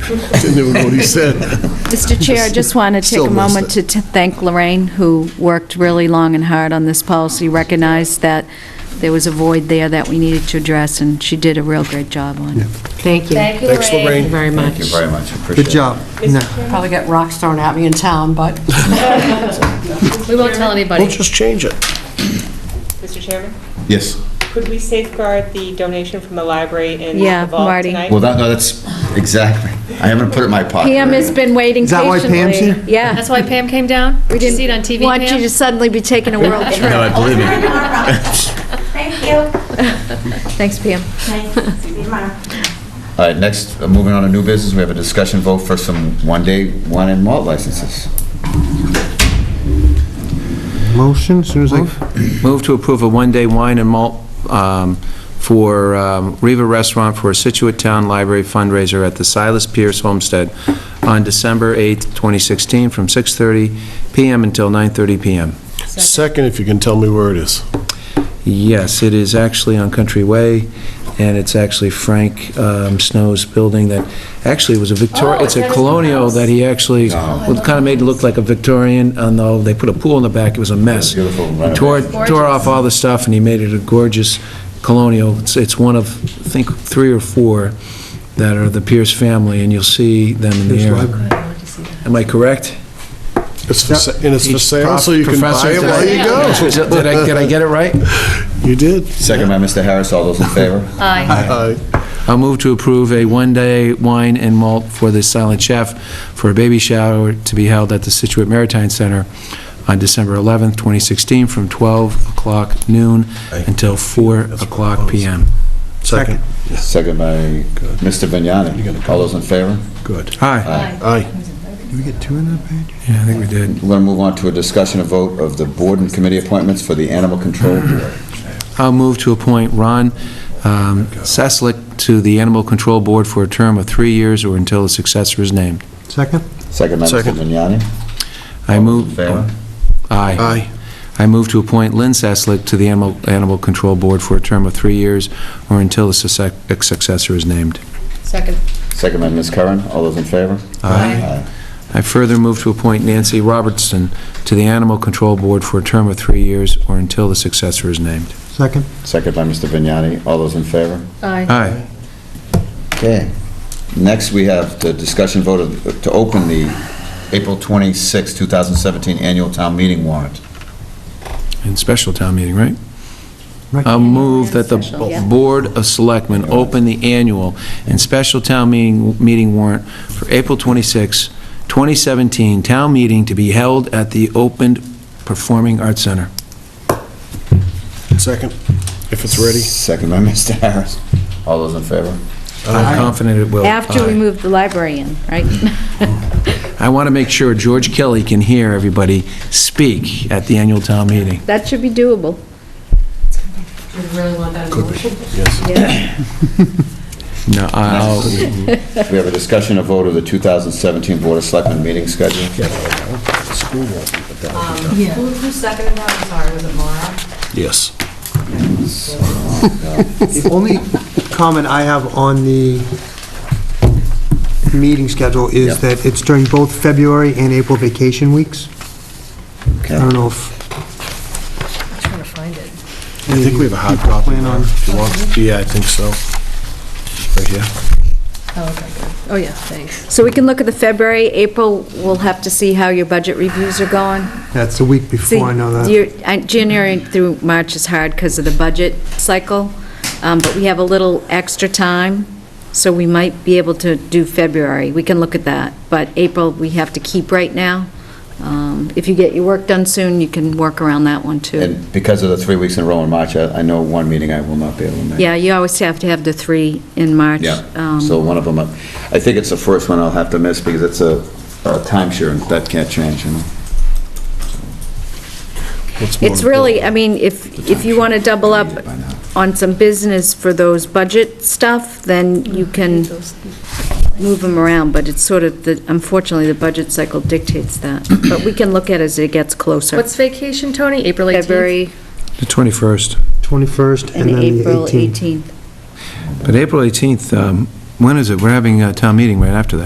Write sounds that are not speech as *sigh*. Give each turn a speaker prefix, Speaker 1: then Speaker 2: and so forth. Speaker 1: Didn't even know what he said.
Speaker 2: *laughs*
Speaker 3: Mr. Chair, I just want to
Speaker 1: Still
Speaker 3: take a
Speaker 1: missed
Speaker 3: moment to to thank Lorraine, who worked really long and hard on this policy, recognized that there was a void there that we needed to address, and she did a real great job on it.
Speaker 4: Thank you.
Speaker 5: Thank you,
Speaker 1: Thanks,
Speaker 5: Lorraine.
Speaker 1: Lorraine.
Speaker 4: Very much.
Speaker 6: Thank you very much, appreciate it.
Speaker 7: Good job. Now,
Speaker 4: Probably got rocks thrown at me in town, but we won't tell
Speaker 1: We'll
Speaker 4: anybody.
Speaker 1: just change it.
Speaker 8: Mr. Chairman,
Speaker 6: Yes.
Speaker 8: could we safeguard the donation from the library in
Speaker 3: Yeah,
Speaker 8: the vault
Speaker 3: Marty.
Speaker 8: tonight?
Speaker 6: Well, that, no, that's, exactly. I haven't put it in my pocket.
Speaker 3: Pam has been waiting patiently.
Speaker 7: Is that why Pam's here?
Speaker 3: Yeah.
Speaker 4: That's why Pam came down? We
Speaker 3: didn't
Speaker 4: See it on TV, Pam?
Speaker 3: Want you to suddenly be taking a world trip.
Speaker 6: No, I believe it.
Speaker 5: Thank you.
Speaker 3: Thanks, Pam.
Speaker 5: Nice to be mine.
Speaker 6: All right, next, uh, moving on to new business, we have a discussion vote for some one-day wine and malt licenses.
Speaker 7: motion, as soon as I,
Speaker 2: Move to approve a one-day wine and malt um, for um, Riva Restaurant for a Situate Town Library fundraiser at the Silas Pierce Homestead on December 8th, 2016, from 6:30 PM until 9:30 PM.
Speaker 1: Second, if you can tell me where it is.
Speaker 2: Yes, it is actually on Country Way, and it's actually Frank um, Snow's building that actually was a Victorian,
Speaker 5: Oh,
Speaker 2: it's a
Speaker 5: that is
Speaker 2: colonial
Speaker 5: nice.
Speaker 2: that he actually, kind of made it look like a Victorian, although they put a pool in the back, it was a mess.
Speaker 6: Beautiful
Speaker 2: He tore,
Speaker 5: renovation.
Speaker 2: tore off all the stuff, and he made it a gorgeous colonial. It's, it's one of, I think, three or four that are the Pierce family, and you'll see them in the
Speaker 7: Pierce
Speaker 2: area.
Speaker 7: Library.
Speaker 2: Am I correct?
Speaker 1: It's for, sa- and it's for sale, so you can buy
Speaker 2: Professor,
Speaker 1: it
Speaker 2: did
Speaker 1: while
Speaker 2: I-
Speaker 1: you
Speaker 2: Is it- *laughs* Did I, did I
Speaker 1: go.
Speaker 2: get it right?
Speaker 1: You did.
Speaker 6: Second by Mr. Harris, all those in favor?
Speaker 4: Aye.
Speaker 1: Aye.
Speaker 2: I'll move to approve a one-day wine and malt for the Silent Chef for a baby shower to be held at the Situate Maritime Center on December 11th, 2016, from 12 o'clock noon until 4 o'clock PM.
Speaker 1: Second.
Speaker 6: Second by Mr. Vignani, all those in favor?
Speaker 1: Good.
Speaker 2: Hi.
Speaker 1: Aye.
Speaker 7: did we get two in that page?
Speaker 2: Yeah, I think we did.
Speaker 6: We're going to move on to a discussion and vote of the board and committee appointments for the animal control
Speaker 2: Mm-hmm.
Speaker 6: board.
Speaker 2: I'll move to appoint Ron um, Seslick to the Animal Control Board for a term of three years or until a successor is named.
Speaker 7: Second?
Speaker 6: Second by Mr.
Speaker 1: Second.
Speaker 6: Vignani,
Speaker 2: I
Speaker 6: all those in
Speaker 2: move...
Speaker 6: favor?
Speaker 1: Aye.
Speaker 2: Aye. I move to appoint Lynn Saslick to the Animal Animal Control Board for a term of three years or until a succe- a successor is named.
Speaker 4: Second.
Speaker 6: Second by Ms. Curran, all those in favor?
Speaker 2: Aye. I further move to appoint Nancy Robertson to the Animal Control Board for a term of three years or until the successor is named.
Speaker 7: Second?
Speaker 6: Second by Mr. Vignani, all those in favor?
Speaker 4: Aye.
Speaker 2: Aye.
Speaker 6: Okay. Next, we have the discussion vote of- to open the April 26, 2017 annual town meeting warrant.
Speaker 2: And special town meeting, right?
Speaker 7: Right.
Speaker 2: I'll move that the
Speaker 3: Special, yeah.
Speaker 2: Board of Selectmen open the annual and special town meeting meeting warrant for April 26, 2017, town meeting to be held at the opened Performing Arts Center.
Speaker 1: Second, if it's ready.
Speaker 6: Second by *laughs* Mr. Harris. All those in
Speaker 3: *laughs*
Speaker 6: favor?
Speaker 2: I'm confident it
Speaker 7: Oh,
Speaker 2: will.
Speaker 3: After we
Speaker 2: Aye.
Speaker 3: move the library in,
Speaker 7: *laughs*
Speaker 3: right?
Speaker 2: I want to make sure George Kelly can hear everybody speak at the annual town meeting.
Speaker 3: That should be doable.
Speaker 4: You really want that motion?
Speaker 2: No, uh, oh, I'll,
Speaker 6: We have a discussion of vote of the 2017 Board of Selectmen meeting schedule.
Speaker 4: Who who seconded that? I'm sorry, was it Mara?
Speaker 1: Yes.
Speaker 7: The only comment I have on the meeting schedule
Speaker 6: Yeah.
Speaker 7: is that it's during both February and April vacation weeks. I
Speaker 6: Okay.
Speaker 7: don't know if
Speaker 4: I'm trying to find it.
Speaker 1: I think we have a hard copy.
Speaker 7: plan on,
Speaker 1: If you want. Yeah, I think so. Right here.
Speaker 4: Oh, okay, good. Oh, yeah, thanks.
Speaker 3: So we can look at the February, April, we'll have to see how your budget reviews are going.
Speaker 7: that's the week
Speaker 3: See,
Speaker 7: before, I know that.
Speaker 3: your- uh, January through March is hard because of the budget cycle, um, but we have a little extra time, so we might be able to do February. We can look at that, but April, we have to keep right now. Um, If you get your work done soon, you can work around that one, too.
Speaker 6: And because of the three weeks in a row in March, I I know one meeting I will not be able to make.
Speaker 3: Yeah, you always have to have the three in March.
Speaker 6: Yeah,
Speaker 3: um,
Speaker 6: so one of them, uh, I think it's the first one I'll have to miss because it's a a timeshare and that can't change, you know?
Speaker 1: What's more
Speaker 3: It's really, I
Speaker 1: important?
Speaker 3: mean, if, if you want to double up
Speaker 6: By now.
Speaker 3: on some business for those budget stuff, then you can move them around, but it's sort of, the unfortunately, the budget cycle dictates that. But we can look at it as it gets closer.
Speaker 4: What's vacation, Tony? April 18th?
Speaker 3: February
Speaker 2: the 21st.
Speaker 7: 21st and
Speaker 3: and
Speaker 7: then the
Speaker 3: April
Speaker 7: 18th.
Speaker 3: 18th.
Speaker 2: But April 18th, um, when is it? We're having a town meeting right after that.